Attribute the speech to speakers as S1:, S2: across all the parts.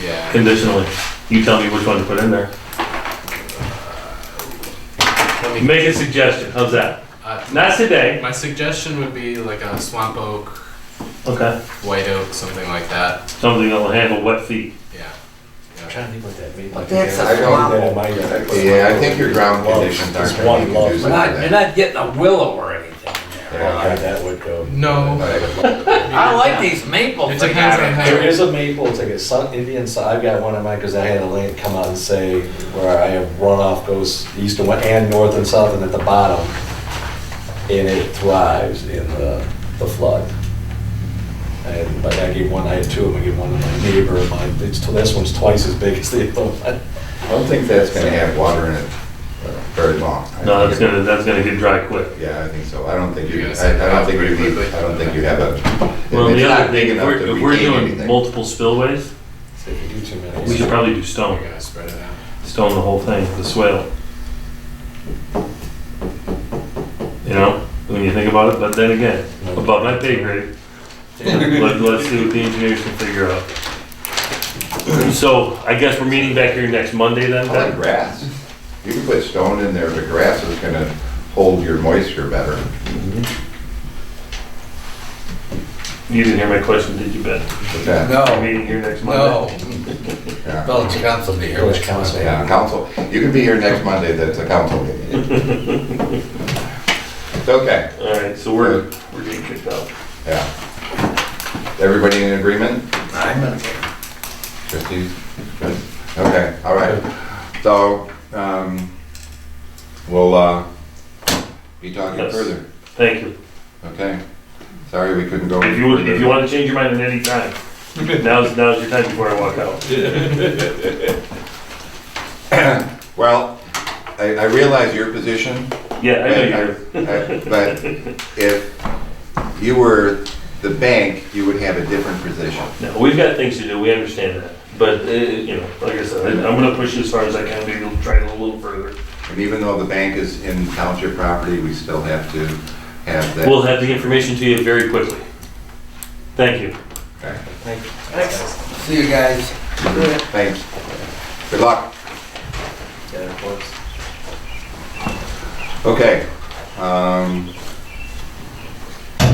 S1: Yeah.
S2: conditionally. You tell me which one to put in there.
S1: Let me,
S2: Make a suggestion, how's that?
S1: uh,
S2: Not today,
S1: my suggestion would be like a swamp oak,
S2: okay,
S1: white oak, something like that.
S2: something that'll handle wet feet.
S1: Yeah.
S3: I'm trying to think what that means.
S4: But that's
S5: I don't- Yeah, I think your ground
S3: Well,
S5: conditions
S3: it's
S5: aren't
S3: one
S5: gonna be
S3: lump.
S5: conducive
S3: We're
S5: to
S3: not-
S4: You're
S5: that.
S4: not getting a willow or anything in there.
S3: Yeah, that would go.
S1: No.
S4: I like these maple
S1: It
S4: things.
S1: depends on how-
S3: There is a maple, it's like a sun, Indian sun, I've got one of mine, because I had a lane come out and say, where I have runoff goes east and west, and north and south, and at the bottom, and it thrives in the, the flood. And, but I gave one, I had two of them, I gave one to my neighbor, and mine, it's, this one's twice as big as the other one.
S5: I don't think that's gonna have water in it uh, very long.
S2: No,
S5: I think
S2: that's
S5: it-
S2: gonna, that's gonna get dry quick.
S5: Yeah, I think so. I don't think
S1: You're
S5: you,
S1: gonna set it
S5: I I don't
S1: up
S5: think you
S1: pretty
S5: need,
S1: quickly.
S5: I don't think you have a. if
S2: Well,
S5: it's
S2: the
S5: not
S2: other thing,
S5: big
S2: if
S5: enough
S2: we're,
S5: to
S2: if we're
S5: retain
S2: doing
S5: anything.
S2: multiple spillways,
S3: So if you do too many-
S2: we should probably do
S1: We're
S2: stone,
S1: gonna spread it out.
S2: stone the whole thing, the swale. You know, when you think about it, but then again, above my pay grade, let, let's see what the engineers can figure out. So I guess we're meeting back here next Monday then,
S5: I like
S2: Ben?
S5: grass. You can put stone in there, but grass is gonna hold your moisture better.
S2: You didn't hear my question, did you, Ben?
S5: But that-
S1: Oh.
S2: We're
S4: No,
S2: meeting here next Monday.
S4: no.
S5: yeah.
S4: Village council be here.
S3: Village council.
S5: Yeah, council, you can be here next Monday, that's a council meeting. It's okay,
S2: All right, so we're, we're getting kicked out.
S5: yeah. Everybody in agreement?
S4: I'm in.
S5: Christie's, good, okay, all right. So, um, we'll, uh, be talking
S2: Yes.
S5: further,
S2: Thank you.
S5: okay? Sorry we couldn't go.
S2: If you, would- if you want to change your mind at any time, now's, now's your time before I walk out.
S5: Well, I, I realize your position,
S2: Yeah, I know
S5: But
S2: you're,
S5: I- I- but if you were the bank, you would have a different position.
S2: no, we've got things to do, we understand that. But, uh, you know, like I said, I- I'm gonna push as far as I can, maybe try it a little further.
S5: And even though the bank is in township property, we still have to have that.
S2: We'll have the information to you very quickly. Thank you.
S5: Okay,
S4: See you guys.
S5: Thanks. Good luck. Okay. um,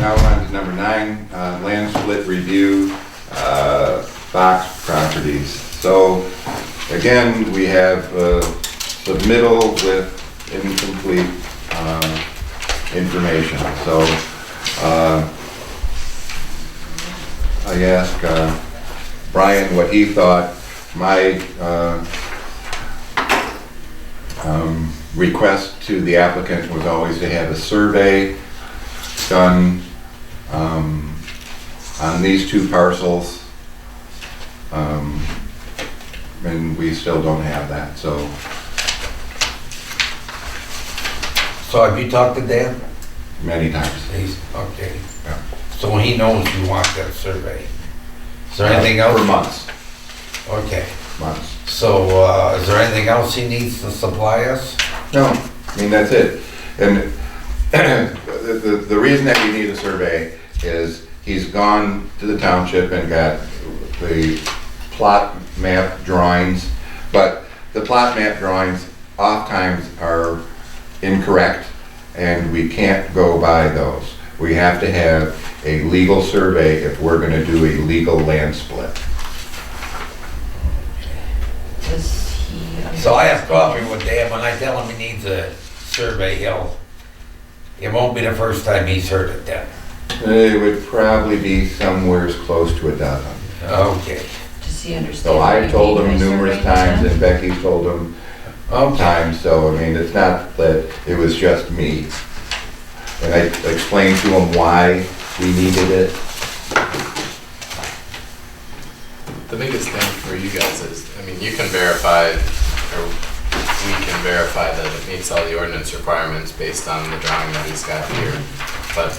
S5: Now we're on to number nine, uh, land split review, uh, Fox properties. So again, we have uh, submittal with incomplete um, information. So uh, I asked uh, Brian what he thought. My uh, um, request to the applicant was always to have a survey done um, on these two parcels. Um, And we still don't have that, so
S4: So have you talked to Dan?
S5: many times.
S4: He's, okay.
S5: Yeah.
S4: So he knows you want that survey. Is there
S5: For months,
S4: Okay,
S5: months.
S4: so, uh, is there anything else he needs to supply us?
S5: No, I mean, that's it. And the, the, the reason that we need a survey is he's gone to the township and got the plot map drawings, but the plot map drawings oftentimes are incorrect, and we can't go by those. We have to have a legal survey if we're gonna do a legal land split.
S4: So I have coffee with Dan when I tell him he needs a survey, he'll, it won't be the first time he's heard it then.
S5: It would probably be somewhere close to a dozen.
S4: Okay,
S6: Does he understand?
S5: So
S6: what
S5: I
S6: you
S5: told
S6: mean
S5: him
S6: by
S5: numerous
S6: survey
S5: times
S6: intent?
S5: and Becky told him um,
S4: okay.
S5: times, so I mean, it's not that it was just me. And I explained to him why we needed it.
S1: The biggest thing for you guys is, I mean, you can verify, or we can verify that it meets all the ordinance requirements based on the drawing that he's got here. But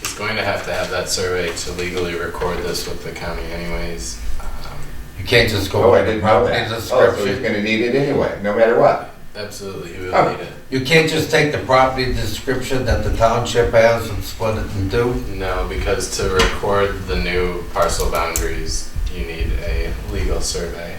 S1: he's going to have to have that survey to legally record this with the county anyways. Um,
S4: You can't just go
S5: Oh, I
S4: by the
S5: didn't know
S4: property
S5: that. Oh, so he's
S4: description.
S5: gonna need it anyway, no matter what.
S1: Absolutely, he
S5: Oh.
S1: will need it.
S4: You can't just take the property description that the township has and split it in two?
S1: No, because to record the new parcel boundaries, you need a legal survey.